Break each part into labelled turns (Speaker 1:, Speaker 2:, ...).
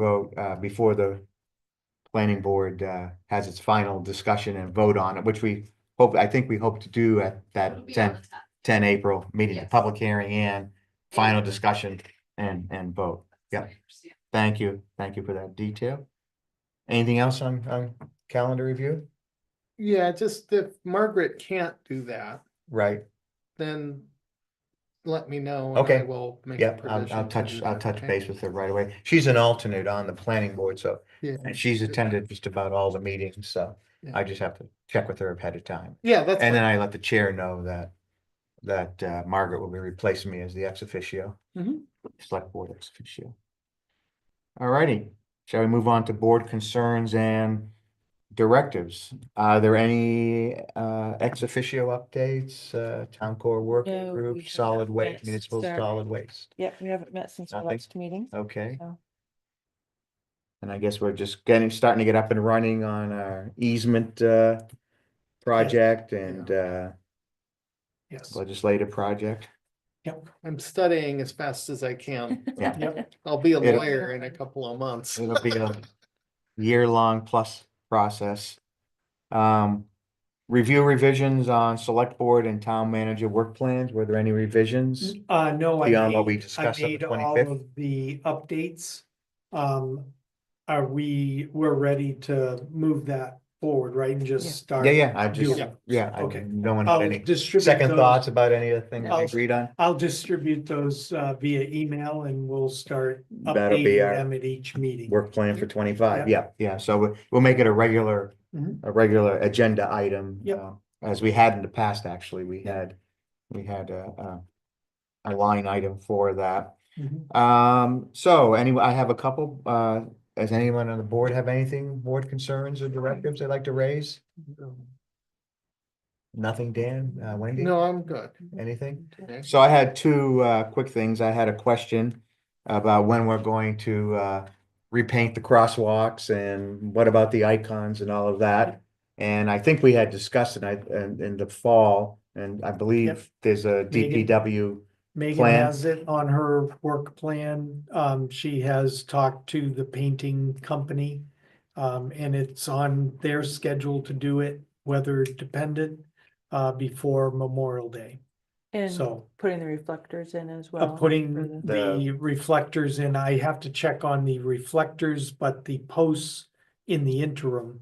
Speaker 1: vote, uh, before the planning board, uh, has its final discussion and vote on it, which we hope, I think we hope to do at
Speaker 2: It'll
Speaker 1: that
Speaker 2: be on
Speaker 1: ten,
Speaker 2: the top.
Speaker 1: ten April meeting, the
Speaker 2: Yes.
Speaker 1: public hearing and final
Speaker 2: Yeah.
Speaker 1: discussion and, and vote. Yeah.
Speaker 2: I understand.
Speaker 1: Thank you, thank you for that detail. Anything else on, on calendar review?
Speaker 3: Yeah, just if Margaret can't do that,
Speaker 1: Right,
Speaker 3: then let me know. and I
Speaker 1: Okay.
Speaker 3: Will make. a
Speaker 1: yep, I'll,
Speaker 3: provision
Speaker 1: I'll
Speaker 3: to
Speaker 1: touch,
Speaker 3: do
Speaker 1: I'll
Speaker 3: that,
Speaker 1: touch
Speaker 3: okay?
Speaker 1: base with her right away. She's an alternate on the planning board, so
Speaker 3: Yeah,
Speaker 1: And she's attended just about all the meetings, so I
Speaker 3: Yeah.
Speaker 1: just have to check with her ahead of time.
Speaker 3: yeah, that's,
Speaker 1: And then
Speaker 3: fine.
Speaker 1: I let the chair know that, that uh, Margaret will be replacing me as the ex officio.
Speaker 4: Mm-hmm.
Speaker 3: Mhm.
Speaker 1: Select board ex officio. All righty, shall we move on to board concerns and directives? Are there any uh, ex officio updates, uh, town core work
Speaker 4: No, we
Speaker 1: group,
Speaker 4: have
Speaker 1: solid
Speaker 4: not
Speaker 1: waste,
Speaker 4: yet
Speaker 1: municipal
Speaker 4: started.
Speaker 1: solid waste?
Speaker 4: Yep, we haven't met since our
Speaker 1: Nothing.
Speaker 4: last meeting.
Speaker 1: Okay.
Speaker 4: so.
Speaker 1: And I guess we're just getting, starting to get up and running on our easement, uh, project and, uh,
Speaker 3: yes,
Speaker 1: legislative project.
Speaker 3: I'm studying as fast as I can.
Speaker 1: Yeah.
Speaker 3: I'll be a
Speaker 1: It'll-
Speaker 3: lawyer in a couple of months.
Speaker 1: It'll be a year-long plus process. Um, review revisions on select board and town manager work plans. Were there any revisions?
Speaker 5: Uh, no, I
Speaker 1: Beyond what we
Speaker 5: made, I
Speaker 1: discussed on the
Speaker 5: made all
Speaker 1: 25th?
Speaker 5: of the updates. Um, are we, we're ready to move that forward, right, and
Speaker 4: Yeah.
Speaker 5: just start?
Speaker 1: Yeah, yeah, I just,
Speaker 5: Yeah.
Speaker 1: yeah, I
Speaker 5: Mm-hmm. Okay.
Speaker 1: no one had
Speaker 5: I'll
Speaker 1: any
Speaker 5: distribute
Speaker 1: second
Speaker 5: those-
Speaker 1: thoughts about any of the things we
Speaker 5: I'll-
Speaker 1: agreed on.
Speaker 5: I'll distribute those uh via email and we'll start
Speaker 1: That'll be
Speaker 5: updating
Speaker 1: our
Speaker 5: them at each meeting.
Speaker 1: Work plan for twenty-five, yeah, yeah, so we- we'll make it a regular,
Speaker 5: Mhm.
Speaker 1: a regular agenda item.
Speaker 5: Yep.
Speaker 1: uh, As we had in the past, actually, we had, we had a, a, a line item for that.
Speaker 5: Mhm.
Speaker 1: Um, so anyway, I have a couple, uh, does anyone on the board have anything, board concerns or directives they'd like to raise? Nothing, Dan, uh, Wendy,
Speaker 3: No, I'm good.
Speaker 1: anything?
Speaker 3: Okay.
Speaker 1: So I had two uh quick things. I had a question about when we're going to uh repaint the crosswalks and what about the icons and all of that? And I think we had discussed it I in in the fall, and I
Speaker 5: Yep.
Speaker 1: believe there's a DPW.
Speaker 5: Megan
Speaker 1: plan.
Speaker 5: has it on her work plan. Um, she has talked to the painting company. Um, and it's on their schedule to do it, weather dependent, uh, before Memorial Day.
Speaker 4: And
Speaker 5: So,
Speaker 4: putting the reflectors in as
Speaker 5: uh,
Speaker 4: well. for
Speaker 5: putting
Speaker 4: the-
Speaker 5: the reflectors in, I have to check on the reflectors, but the posts in the interim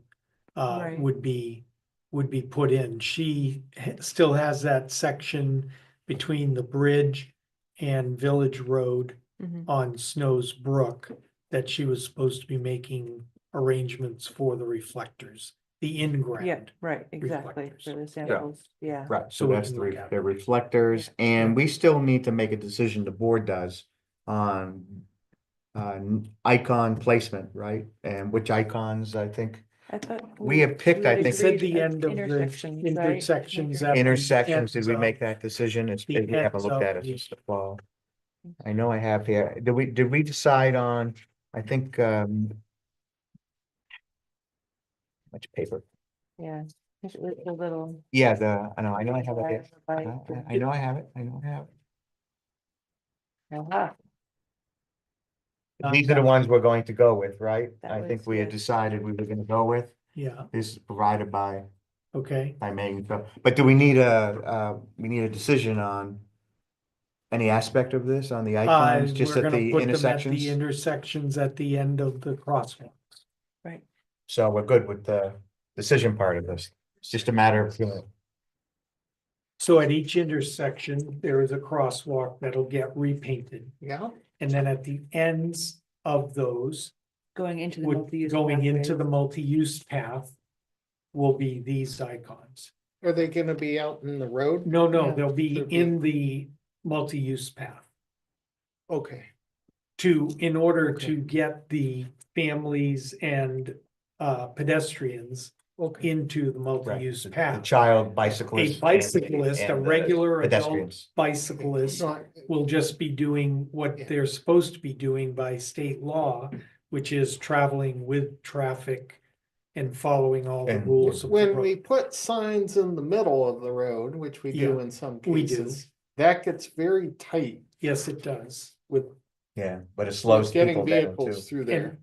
Speaker 5: uh,
Speaker 4: Right.
Speaker 5: would be, would be put in. She ha- still has that section between the bridge and Village Road
Speaker 4: Mhm.
Speaker 5: on Snow's Brook that she was supposed to be making arrangements for the reflectors, the
Speaker 4: Yeah,
Speaker 5: in-ground.
Speaker 4: right, exactly,
Speaker 5: reflectors.
Speaker 4: for the samples, yeah.
Speaker 1: Right, so
Speaker 5: So we
Speaker 1: that's
Speaker 5: can
Speaker 1: the
Speaker 5: look
Speaker 1: re-
Speaker 5: at it.
Speaker 1: the reflectors, and we still need to make a decision, the board does, on on icon placement, right? And which icons, I think,
Speaker 4: I thought
Speaker 1: we have picked, I
Speaker 4: had
Speaker 1: think,
Speaker 5: It's at
Speaker 4: agreed
Speaker 5: the
Speaker 4: at
Speaker 5: end of the
Speaker 4: intersections, right?
Speaker 5: intersections.
Speaker 4: Okay.
Speaker 5: at the
Speaker 1: intersections, did we
Speaker 5: ends
Speaker 1: make
Speaker 5: of-
Speaker 1: that decision? It's, we
Speaker 5: the
Speaker 1: haven't
Speaker 5: ends
Speaker 1: looked
Speaker 5: of
Speaker 1: at it
Speaker 5: the-
Speaker 1: since the fall. I know I have here, did we, did we decide on, I think, um. Much paper,
Speaker 4: Yeah, it was a little.
Speaker 1: yeah, the, I know, I know I have it, here. I
Speaker 4: Right,
Speaker 1: know- I know I have it, I know I have it.
Speaker 4: aha,
Speaker 5: Um,
Speaker 1: These are the ones we're going to go with, right?
Speaker 4: That
Speaker 1: I think
Speaker 4: was-
Speaker 1: we had
Speaker 4: yeah.
Speaker 1: decided we were gonna go with,
Speaker 5: Yeah,
Speaker 1: this is provided by,
Speaker 5: okay.
Speaker 1: by Megan, so- but do we need a, uh, we need a decision on? Any aspect of this on the
Speaker 5: Uh,
Speaker 1: icons, just
Speaker 5: we're
Speaker 1: at
Speaker 5: gonna
Speaker 1: the
Speaker 5: put them
Speaker 1: intersections?
Speaker 5: The intersections at the end of the crosswalk.
Speaker 4: right.
Speaker 1: So we're good with the decision part of this. It's just a matter of, you know,
Speaker 5: So at each intersection, there is a crosswalk that'll get repainted.
Speaker 3: Yeah,
Speaker 5: And then at the ends of those,
Speaker 4: Going into the
Speaker 5: would,
Speaker 4: multi-use.
Speaker 5: going into the
Speaker 4: pathways.
Speaker 5: multi-use path will be these icons.
Speaker 3: are they gonna be out in the road?
Speaker 5: No,
Speaker 4: Yeah.
Speaker 5: no, they'll be
Speaker 3: They'll be-
Speaker 5: in the multi-use path.
Speaker 3: Okay,
Speaker 5: to, in order
Speaker 3: Okay.
Speaker 5: to get the families and uh pedestrians
Speaker 3: okay.
Speaker 5: into the multi-use
Speaker 1: the
Speaker 5: path.
Speaker 1: child bicyclist.
Speaker 5: A
Speaker 1: and-
Speaker 5: bicyclist, a
Speaker 1: and the
Speaker 5: regular adult
Speaker 1: Pedestrians.
Speaker 5: bicyclist
Speaker 3: No, I-
Speaker 5: will just be doing
Speaker 3: Yeah.
Speaker 5: what they're supposed to be doing by state law, which is traveling with traffic and following all the
Speaker 1: And
Speaker 5: rules of the
Speaker 3: When we
Speaker 5: road.
Speaker 3: put signs in the middle of the road, which we do
Speaker 5: Yeah,
Speaker 3: in some
Speaker 5: we do.
Speaker 3: cases, that gets very tight
Speaker 5: Yes, it does.
Speaker 3: with
Speaker 1: yeah, but it slows
Speaker 3: Getting
Speaker 1: people down too.
Speaker 3: vehicles Through there.
Speaker 5: And,